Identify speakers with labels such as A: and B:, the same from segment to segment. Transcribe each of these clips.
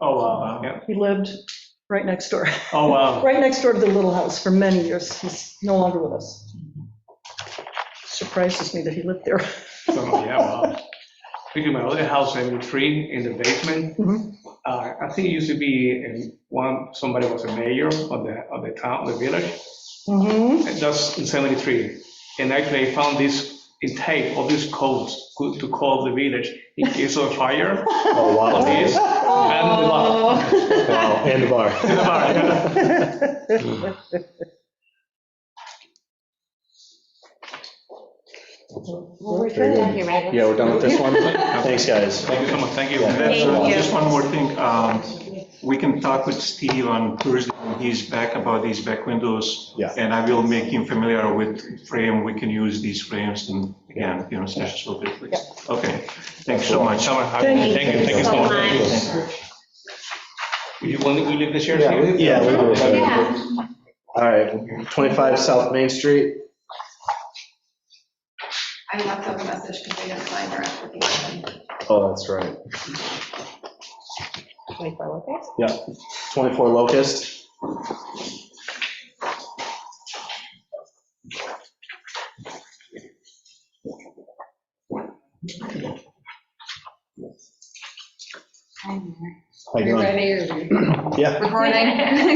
A: Oh, Yeah.
B: He lived right next door,
A: Oh, wow.
B: right next door to the Little House for many years. He's no longer with us. Surprises me that he lived there.
A: So, yeah, wow. Speaking of my other house, I moved three in the basement.
B: Mhm.
A: Uh, I think it used to be in one, somebody was a mayor of the, of the town, the village.
B: Mhm.
C: Mm-hmm.
A: And That's in 73. And actually, I found this in tape of these codes co- to call the village in case of fire,
D: Oh, wow.
A: police, and the law.
D: Wow, And the bar.
A: And the bar, yeah.
E: Well, we're through that here, right?
D: Yeah, we're done with this one. Thanks, guys.
F: Thank you so much, thank you.
D: Yeah.
F: That's, uh,
E: Thank you.
F: Just one more thing, um, we can talk with Steve on Thursday when he's back about these back windows.
D: Yeah.
F: And I will make him familiar with frame, we can use these frames and again, you know, sessions will be fixed. Okay, thanks so much.
B: Thank you.
F: Thank you, thank you so much.
A: Will you, will you leave the chairs
D: Yeah,
A: here?
D: we- yeah, we do.
E: Yeah.
D: All right, 25 South Main Street.
G: I left them a message because they didn't find our application.
D: Oh, that's right.
E: 24 workers.
D: 24 Locust.
C: I'm
D: How you doing? Yeah.
C: Recording.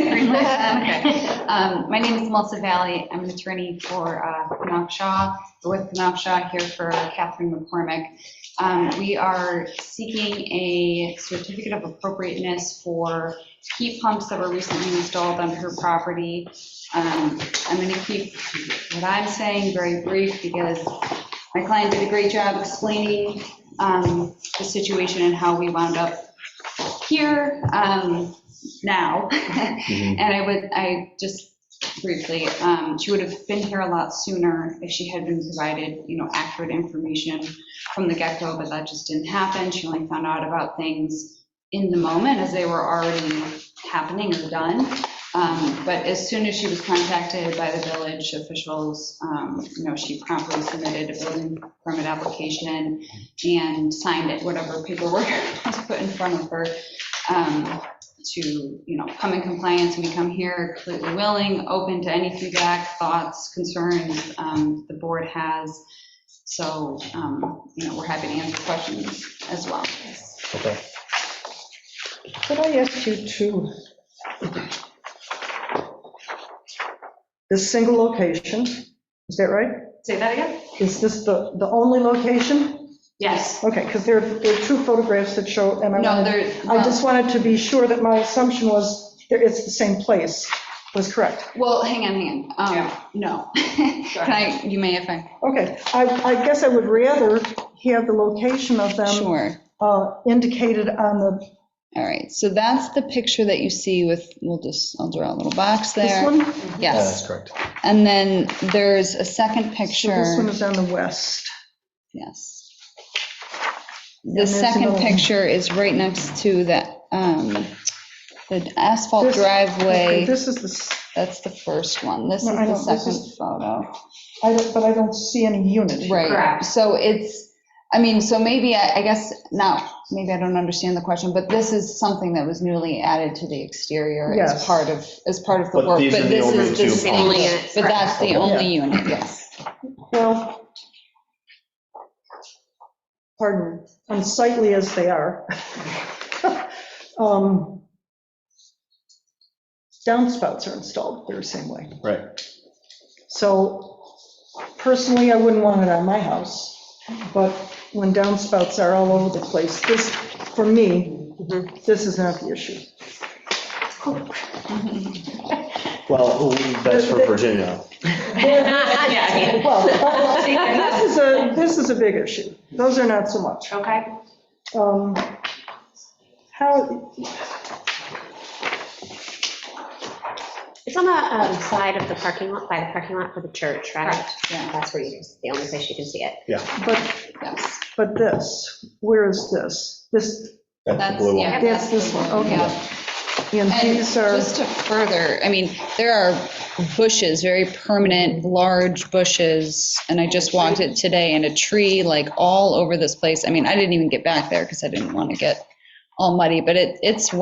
C: Green light, okay.
E: Okay.
C: Um, My name is Melissa Valley. I'm an attorney for uh, Knopf Shaw, with Knopf Shaw here for Catherine McCormick. Um, We are seeking a certificate of appropriateness for heat pumps that were recently installed on her property. Um, I'm going to keep what I'm saying very brief because my client did a great job explaining um, the situation and how we wound up here um, now. And I would, I just briefly, um, she would have been here a lot sooner if she had been provided, you know, accurate information from the get-go, but that just didn't happen. She only found out about things in the moment as they were already happening or done. Um, But as soon as she was contacted by the village officials, um, you know, she promptly submitted a building permit application and signed it, whatever paperwork was put in front of her um, to, you know, come in compliance, and we come here completely willing, open to any feedback, thoughts, concerns um, the board has. So, um, you know, we're happy to answer questions as well.
B: Could I ask you to, this single location, is that right?
C: Say that again?
B: Is this the, the only location?
C: Yes.
B: Okay, because there, there are two photographs that show, and I
C: No,
B: wanted,
C: there,
B: I just wanted to be sure that my assumption was, there it's the same place, was correct.
C: well, hang on, hang on. Um,
B: Yeah.
C: No. Can I, you may if I.
B: Okay, I, I guess I would rather have the location of them
C: Sure.
B: uh, indicated on the,
C: All right, so that's the picture that you see with, we'll just, I'll draw a little box
B: this
C: there.
B: one?
D: Yeah,
C: Yes,
D: That's correct.
C: and then there's a second
B: So This one
C: picture,
B: is on the west.
C: yes.
B: And
C: The
B: there's another
C: second
B: one.
C: picture is right next to the, um, the asphalt
B: This- Okay,
C: driveway.
B: This is the, s-
C: That's the first one. This is
B: No, I
C: the
B: know, this
C: second
B: is-
C: photo.
B: I don't- but I don't see any unit. here.
C: Right,
E: Correct.
C: so it's, I mean, so maybe, I I guess, now, maybe I don't understand the question, but this is something that was newly added to the exterior
B: Yes.
C: as part of, as part of the
D: But
C: work,
D: these are
C: but
D: the
C: this
D: only
C: is the
D: two
C: single,
E: homes. Units,
C: but that's the
D: correct.
C: only unit, yes.
B: Well, pardon, unsightly as they are. um, Downspouts are installed, they're the same way.
D: Right.
B: So personally, I wouldn't want it on my house, but when downspouts are all over the place, this, for me, this is not the issue.
D: Well, that's for Virginia.
E: Yeah.
B: Well, this is a, this is a big issue. Those are not so much.
E: Okay.
B: um, How,
E: It's on the um, side of the parking lot, by the parking lot for the church, right?
C: Yeah,
E: That's where you, the only place you can see it.
B: but,
C: yes.
B: but this, where is this? This,
D: That's the
C: That's,
D: blue one.
C: yeah.
B: That's
C: the
B: this one, okay.
C: yeah.
B: and
C: And
B: these are,
C: just to further, I mean, there are bushes, very permanent, large bushes, and I just walked it today, and a tree, like, all over this place. I mean, I didn't even get back there because I didn't want to get all muddy, but it, it's